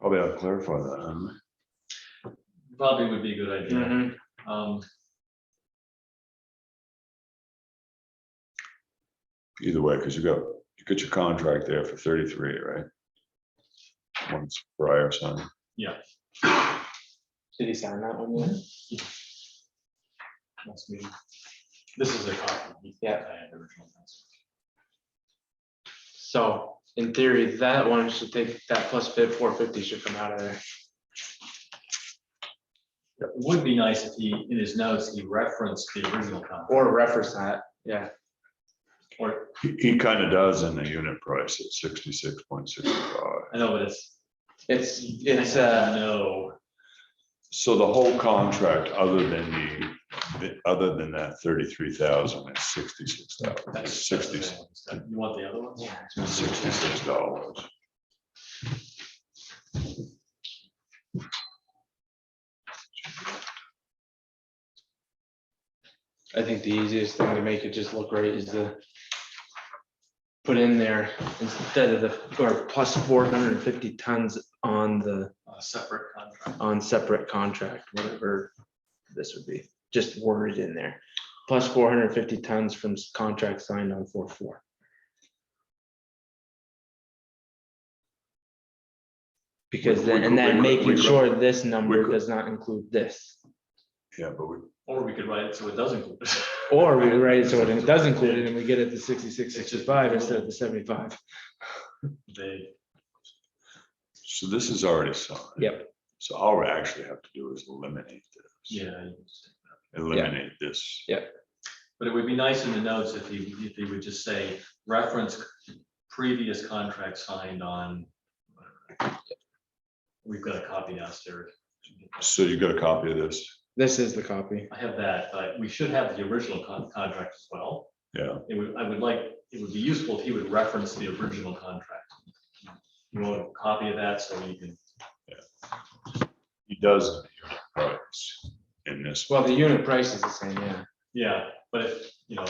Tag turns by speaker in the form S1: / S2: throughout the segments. S1: Probably ought to clarify that. um, huh?
S2: probably would be a good idea.
S3: Mm-hmm.
S2: Um,
S1: Either way, because you got, you got your contract there for thirty-three, right? Once prior signed.
S3: Did he sign that one yet?
S2: next meeting. This is a copy.
S3: Yeah.
S2: I had the original. So,
S3: In theory, that one should take, that plus bid four fifty should come out of there.
S2: it would be nice if he, in his notes, he referenced the original contract,
S3: Or reference that, yeah.
S2: or,
S1: He, he kind of does in the unit price at sixty-six point sixty-five.
S2: I know, but it's.
S3: It's, it's, uh,
S2: No,
S1: So the whole contract, other than the, the- other than that thirty-three thousand is sixty-six thousand,
S2: that's. that's the
S1: sixty,
S2: thing. You want the other ones?
S3: yeah,
S1: sixty-six dollars.
S3: I think the easiest thing to make it just look right is to put in there instead of the, or plus four hundred and fifty tons on the,
S2: A separate contract.
S3: on separate contract, whatever this would be, just worded in there. Plus four hundred and fifty tons from s- contract signed on four four. Because
S1: We-
S3: then,
S1: we
S3: and
S1: could-
S3: then
S1: we could- we
S3: making
S1: could-
S3: sure this number
S1: could-
S3: does not include this.
S1: Yeah, but we,
S2: Or we could write it so it doesn't. include it.
S3: Or we write it so it does include it and we get it to sixty-six,
S2: It's just-
S3: sixty-five instead of the seventy-five.
S2: They,
S1: so this is already signed.
S3: Yep.
S1: So all we actually have to do is eliminate this.
S2: yeah, you just-
S1: Eliminate this.
S2: but it would be nice in the notes if he, if he would just say, reference previous contract signed on. whatever." We've got a copy downstairs.
S1: So you got a copy of this?
S3: This is the copy.
S2: I have that, but we should have the original con- contract as well.
S1: Yeah,
S2: It would, I would like, it would be useful if he would reference the original contract. You want a copy of that so you can,
S1: he does. in the unit price In this,
S3: Well, the unit price is the same, yeah.
S2: yeah, but if, you know.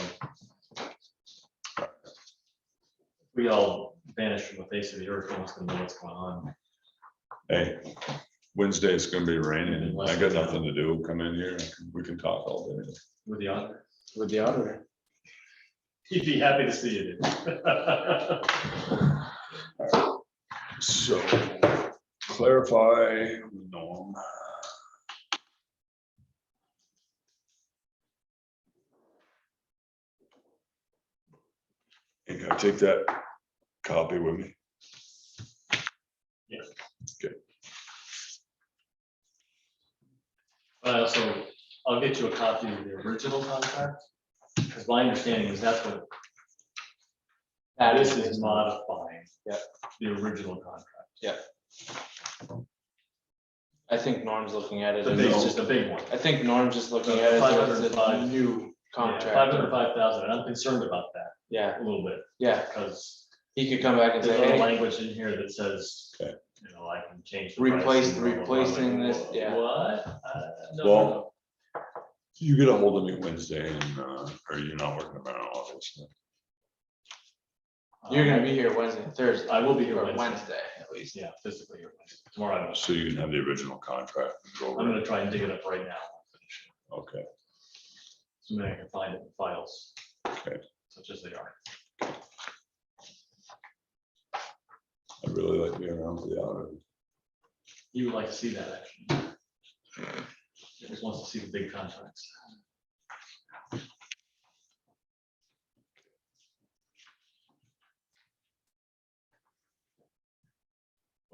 S2: We all vanish from the face of the earth, no one's gonna know what's going on.
S1: hey, Wednesday it's gonna be raining, and I got nothing to do, come in here, we can talk all day.
S2: With the auditor,
S3: With the auditor.
S2: he'd be happy to see you. dude.
S1: So clarify, Norm. And can I take that copy with me?
S2: Yeah.
S1: Okay.
S2: I also, Uh, I'll get you a copy of the original contract, because my understanding is that's what. That is is modifying.
S3: Yep.
S2: The original contract.
S3: I think Norm's looking at it.
S2: The
S3: as
S2: big,
S3: it's
S2: just
S3: just-
S2: a big one.
S3: I think Norm's just looking at it as it's a
S2: 505.
S3: new contract.
S2: Five hundred five thousand, and I'm concerned about that
S3: Yeah,
S2: a little bit,
S3: yeah.
S2: because
S3: He could come back and
S2: there's
S3: say,
S2: other
S3: hey,
S2: language in here that says, you
S1: Okay.
S2: know, I can change. the price
S3: Replace-
S2: and blah, blah, blah.
S3: replacing
S2: Like,
S3: this, yeah.
S2: What? Uh, no, no,
S1: Well,
S2: no.
S1: You get a hold of me Wednesday and, uh, or you're not working around obviously.
S3: you're gonna be here Wednesday, Thursday.
S2: I will be here
S3: or
S2: Wednesday.
S3: Wednesday, at least.
S2: Yeah, physically here Wednesday. tomorrow. I will.
S1: So you can have the original contract. and go
S2: I'm
S1: over it.
S2: gonna try and dig it up right now.
S1: Okay,
S2: So maybe I can find it in files.
S1: Okay.
S2: Such as they are.
S1: I really like being around for the auto.
S2: You would like to see that action. He just wants to see the big contracts.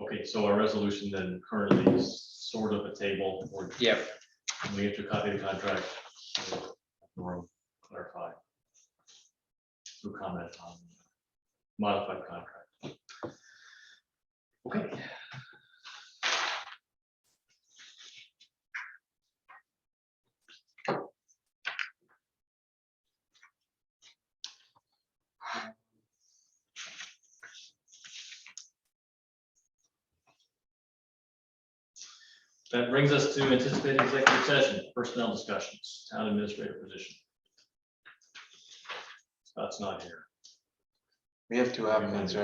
S2: Okay, so our resolution then currently is sort of a table or
S3: Yep.
S2: we have to copy the contract. Or clarify. Through comment on modified contract. Okay. That brings us to anticipated executive session, personnel discussions, town administrator position. Scott's not here.
S3: We have two applicants, right?